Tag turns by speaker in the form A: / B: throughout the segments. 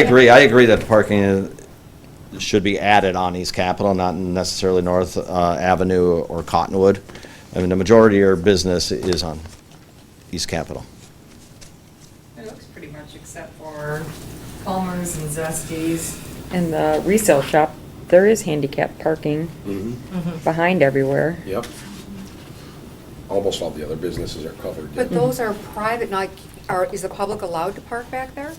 A: I agree, I agree that parking is- should be added on East Capitol, not necessarily North uh, Avenue or Cottonwood. I mean, the majority of your business is on East Capitol.
B: It looks pretty much except for Palmer's and Zesties. And the resale shop, there is handicap parking behind everywhere.
C: Yep. Almost all the other businesses are covered.
D: But those are private, not, are, is the public allowed to park back there?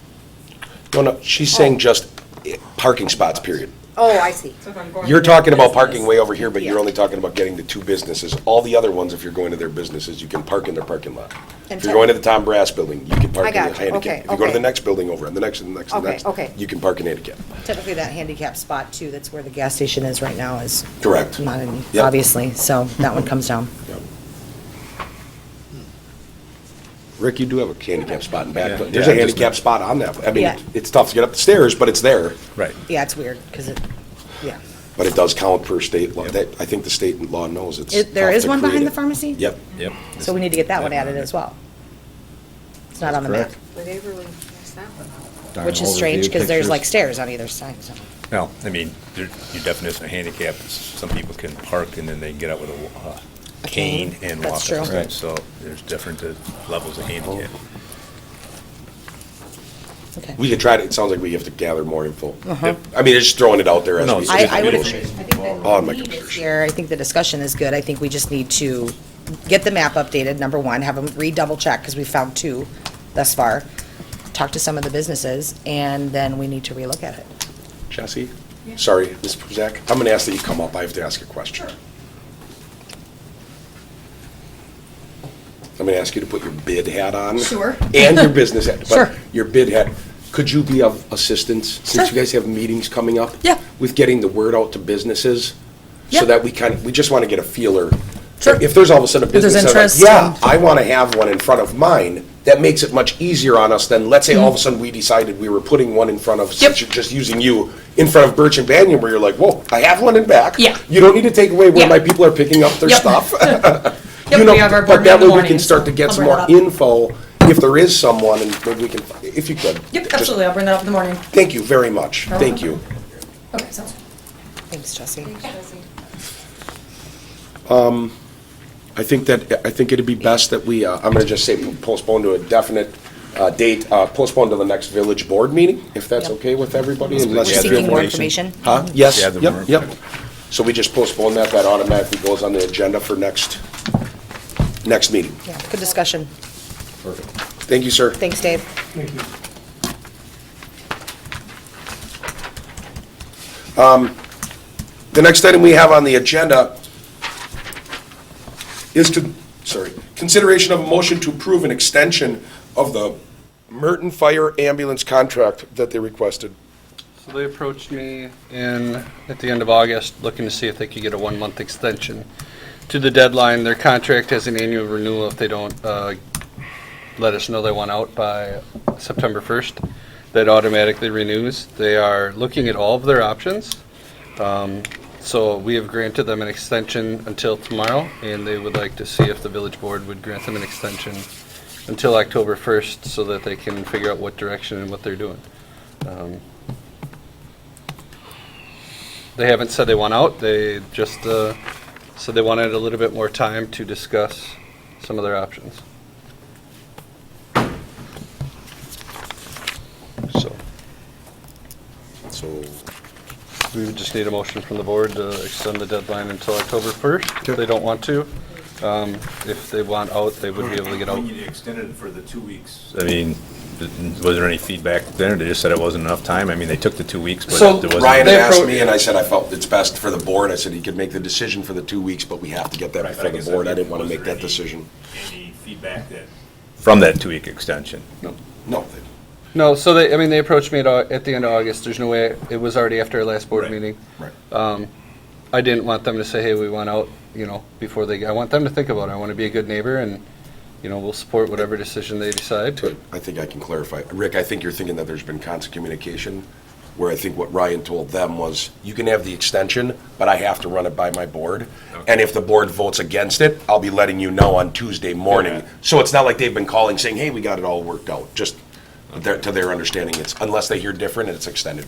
C: No, no, she's saying just eh, parking spots, period.
D: Oh, I see.
B: So if I'm going
C: You're
B: to their
C: talking about
B: business-
C: parking way over here, but you're
D: Yeah.
C: only talking about getting to two businesses. All the other ones, if you're going to their businesses, you can park in their parking lot. If
D: And
C: you're
D: so-
C: going to the Tom Brass building, you can park
D: I
C: in the
D: got you. Okay,
C: handicap. If you go to the
D: okay.
C: next building over, and the next, and the next, and the
D: Okay,
C: next.
D: okay.
C: You can park in handicap.
E: Typically, that handicap spot too, that's where the gas station is right now, is.
C: Correct.
E: Not any,
C: Yep.
E: obviously, so that one comes down.
C: Yep. Hmm. Rick, you do have a handicap spot in back. There's a
F: Yeah, I just-
C: handicap spot on that. I mean,
E: Yeah.
C: it's tough to get up the stairs, but it's there.
F: Right.
E: Yeah, it's weird, because it, yeah.
C: But it does count per state law. That, I think the state law knows it's.
E: It- there
C: tough
E: is
C: to
E: one
C: create
E: behind
C: it.
E: the pharmacy?
C: Yep.
F: Yep.
E: So we need to get that one added as well. It's not on the map,
A: Correct.
D: Were they really, it's not allowed.
A: Darn
E: which is
A: overview
E: strange, because there's like
A: pictures.
E: stairs on either side, so.
F: Well, I mean, your your definition of handicap is some people can park and then they get out with a wa- a
E: A
F: cane
E: cane,
F: and walk.
E: that's
F: up
E: true.
F: the
A: Right.
F: steps. So there's different uh, levels of handicap.
E: okay.
C: We could try to, it sounds like we have to gather more info.
E: Uh-huh.
C: I mean, it's just throwing it out there as
F: No,
C: we. Oh,
F: it's
E: I,
F: just
E: I would agree. I
F: negotiate.
E: think that
C: On my
E: the need is
C: computer.
E: Here, I think the discussion is good. I think we just need to get the map updated, number one, have them redouble check, because we found two thus far. Talk to some of the businesses, and then we need to relook at it.
C: Jesse, sorry, Ms. Puzak, I'm going to ask that you come up. I have to ask a question. I'm going to ask you to put your bid hat on.
E: Sure.
C: And your business hat. but
E: Sure.
C: Your bid hat. Could you be of assistance, since you guys have meetings coming up?
E: Yeah.
C: With getting the word out to businesses?
E: Yeah.
C: So that we kind of, we just want to get a feeler.
E: Sure.
C: If there's all of a sudden a
E: there's
C: business. that's like,
E: interest and-
C: Yeah, I want to have one in front of mine. That makes it much easier on us than, let's say, all of a
E: Mm.
C: sudden we decided we were putting one in front of, since you're just using you, in front of Birch and Banyan, where you're like, whoa, I have one in back.
G: Yeah.
C: You don't need to take away where
G: Yeah.
C: my people are picking up their
G: Yep.
C: stuff.
G: Yep,
C: You know,
G: we have our
C: But
G: board
C: that
G: meeting in
C: way
G: the
C: we can
G: morning,
C: start to
G: so
C: get
G: I'll
C: some
G: bring
C: more
G: it up.
C: info, if there is someone, and maybe we can, if you could.
G: Yep,
C: Just-
G: absolutely, I'll bring that up in the morning.
C: Thank you very much. Thank you.
G: Okay, sounds good.
E: Thanks, Jesse.
C: I think that, I think it'd be best that we, uh, I'm going to just say postpone to a definite uh, date, uh, postpone to the next village board meeting, if that's
E: Yep.
C: okay with everybody, unless
F: we
C: you
F: have
C: feel
E: Seeking more
C: more.
E: information?
C: Huh? Yes,
F: Yeah, the
C: yep,
F: more-
C: yep. So we just postpone that, that automatically goes on the agenda for next, next meeting.
E: Yeah, good discussion.
C: Perfect. Thank you, sir.
E: Thanks, Dave.
C: The next item we have on the agenda is to, sorry, consideration of a motion to approve an extension of the Merton Fire Ambulance contract that they requested.
H: So they approached me in, at the end of August, looking to see if they could get a one-month extension to the deadline. Their contract has an annual renewal if they don't uh, let us know they want out by September 1st. That automatically renews. They are looking at all of their options. Um, So we have granted them an extension until tomorrow, and they would like to see if the village board would grant them an extension until October 1st so that they can figure out what direction and what they're doing. Um, they haven't said they want out, they just uh, said they wanted a little bit more time to discuss some of their options. So,
C: So
H: we would just need a motion from the board to extend the deadline until October 1st, if they don't want to. Um, If they want out, they would be able to get out.
F: You extended it for the two weeks. I mean, th- was there any feedback there? They just said it wasn't enough time. I mean, they took the two weeks, but
H: So,
F: there wasn't.
C: Ryan had
H: They
C: asked
H: appro-
C: me, and I said I felt it's best for the board. I said he could make the decision for the two weeks, but we have to get that
F: Right, but
C: before
F: I
C: the
F: guess
C: board.
F: I
C: I didn't
F: mean,
C: want to
F: was
C: make
F: there
C: that
F: any-
C: decision.
F: Any feedback that? From that two-week extension.
C: No.
H: No, so they, I mean, they approached me at, au- at the end of August, there's no way, it was already after our last board
F: Right.
H: meeting.
C: Right.
H: Um, I didn't want them to say, hey, we want out, you know, before they, I want them to think about it. I want to be a good neighbor and, you know, we'll support whatever decision they decide.
C: Good. I think I can clarify. Rick, I think you're thinking that there's been constant communication, where I think what Ryan told them was, you can have the extension, but I have to run it by my board. And if the board votes against it, I'll be letting you know on Tuesday morning.
F: Yeah.
C: So it's not like they've been calling saying, hey, we got it all worked out. Just, their- to their understanding, it's, unless they hear different, it's extended